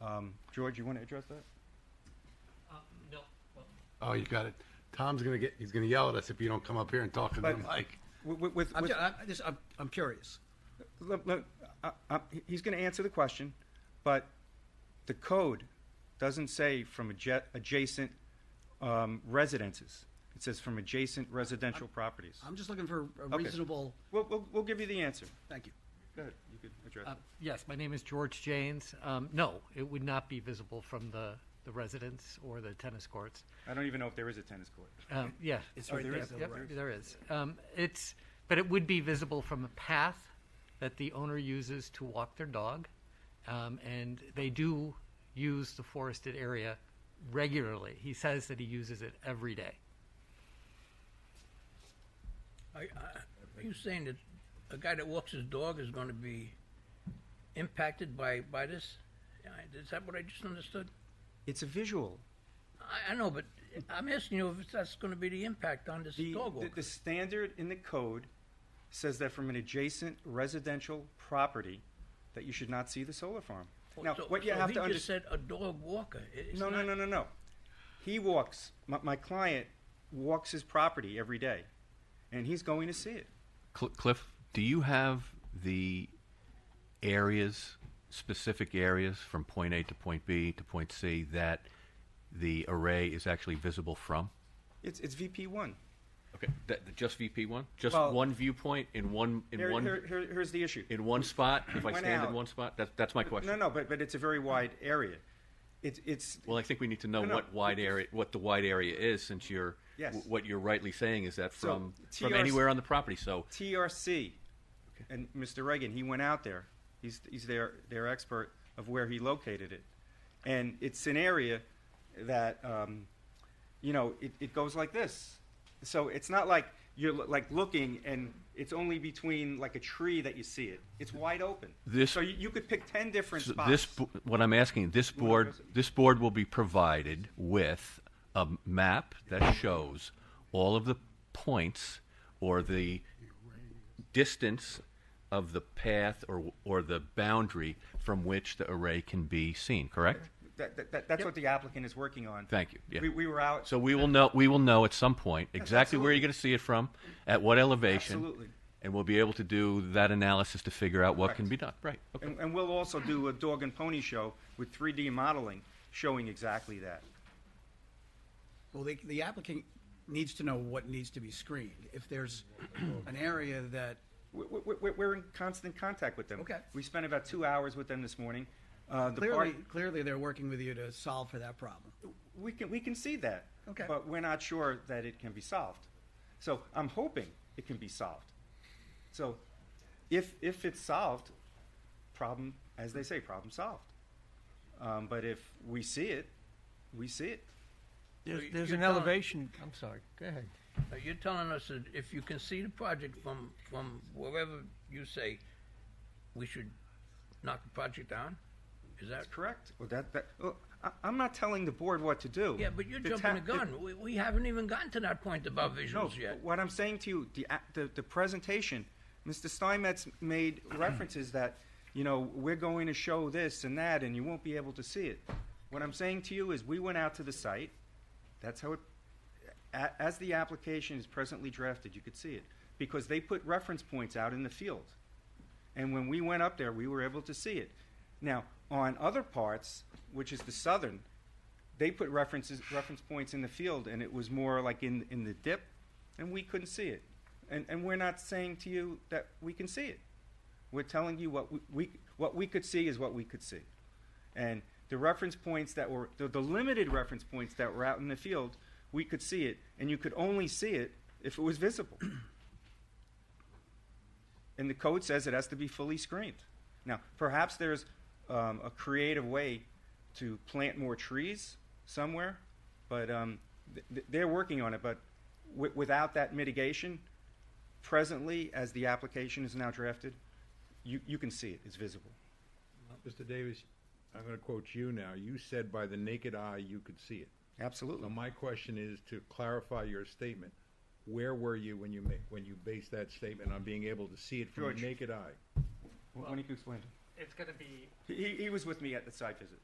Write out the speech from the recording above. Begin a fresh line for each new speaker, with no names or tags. Um, George, you want to address that?
Uh, no, well,
Oh, you got it. Tom's gonna get, he's gonna yell at us if you don't come up here and talk into the
But-
mic.
With, with, with,
I'm, ju- uh, I'm just, I'm, I'm curious.
look, look, I, I, he's going to answer the question, but the code doesn't say from adja- adjacent um, residences. It says from adjacent residential properties.
I'm just looking for a
Okay.
reasonable,
We'll, we'll, we'll give you the answer.
thank you.
Go ahead. You could address
uh,
it.
yes, my name is George Janes. Um, no, it would not be visible from the, the residence or the tennis courts.
I don't even know if there is a tennis court.
Um, yeah.
It's
Oh,
right
there
there.
is,
though,
Yep,
right?
there is. Um, it's, but it would be visible from a path that the owner uses to walk their dog, um, and they do use the forested area regularly. He says that he uses it every day.
Are, uh, are you saying that a guy that walks his dog is going to be impacted by, by this? I- Is that what I just understood?
It's a visual.
I, I know, but I'm asking you if that's going to be the impact on this
The,
dog
the,
walker.
the standard in the code says that from an adjacent residential property, that you should not see the solar farm. Now,
so,
what you
so
have
he
to
just
understand.
said a dog walker. It- It's
No, no,
not-
no, no, no. He walks. My, my client walks his property every day, and he's going to see it.
Cl- Cliff, do you have the areas, specific areas from point A to point B to point C that the array is actually visible from?
It's it's VP one.
Okay, that, just VP one, just
Well-
one viewpoint in one in
Here,
one
here, here- here's the issue.
in one spot. If I
Went
stand
out.
in one spot, that, that's my question.
No, no, but but it's a very wide area. It's it's
Well, I think we need to know
No, no,
what wide
it is-
area, what the wide area is, since you're
Yes.
w- what you're rightly saying is that
So,
from from
TRC
anywhere on the property. So
TRC, and Mr. Reagan. He went out there. He's he's their their expert of where he located it, and it's an area that um, you know it, it goes like this. So it's not like you're lo- like looking and it's only between like a tree that you see it. It's wide open.
This-
so you, you could pick ten different
So
spots.
This, bo- what I'm asking, this
wanna
board,
address it?
this board will be provided with a map that shows all of the points or the distance of the path or, or the boundary from which the array can be seen, correct?
that, that, that- that's what the applicant is working on.
Thank you, yeah.
We, we were out.
So we will know, we will know at some point exactly where
absolutely.
you're going to see it from, at what elevation.
Absolutely.
And we'll be able to do that analysis to figure out what can
Correct.
be done, right? Okay.
And, and we'll also do a dog and pony show with 3D modeling showing exactly that.
Well, the, the applicant needs to know what needs to be screened. If there's an area that,
We- we- we- We're in constant contact with them.
Okay.
We spent about two hours with them this morning. Uh, the
clearly,
party,
clearly they're working with you to solve for that problem.
we can, we can see that.
Okay.
But we're not sure that it can be solved. So I'm hoping it can be solved. So if, if it's solved, problem, as they say, problem solved. Um, but if we see it, we see it.
There's,
you-
there's
you're
an
telling-
elevation, I'm sorry, go ahead.
Uh, You're telling us that if you can see the project from, from wherever you say, we should knock the project down? Is that?
That's correct. Well, that, that, well, I, I'm not telling the board what to do.
Yeah, but you're
The
jumping
ta-
the gun. We, we haven't even gotten to that point about
No,
visuals yet.
what I'm saying to you, the, a- the, the presentation, Mr. Steinmetz made references that, you know, we're going to show this and that, and you won't be able to see it. What I'm saying to you is, we went out to the site, that's how it, a, as the application is presently drafted, you could see it, because they put reference points out in the field. And when we went up there, we were able to see it. Now, on other parts, which is the southern, they put references, reference points in the field, and it was more like in, in the dip, and we couldn't see it. And, and we're not saying to you that we can see it. We're telling you what we, we, what we could see is what we could see. And the reference points that were, the, the limited reference points that were out in the field, we could see it, and you could only see it if it was visible. And the code says it has to be fully screened. Now, perhaps there's um, a creative way to plant more trees somewhere, but um, th- th- they're working on it. But wi- without that mitigation, presently, as the application is now drafted, you, you can see it, it's visible.
Mr. Davis, I'm going to quote you now. You said by the naked eye you could see it. So
Absolutely.
my question is to clarify your statement. Where were you when you ma- when you based that statement on being able to see it from
George.
the naked eye?
When you explain
It's going to be
it. He, he was with me at the site visit.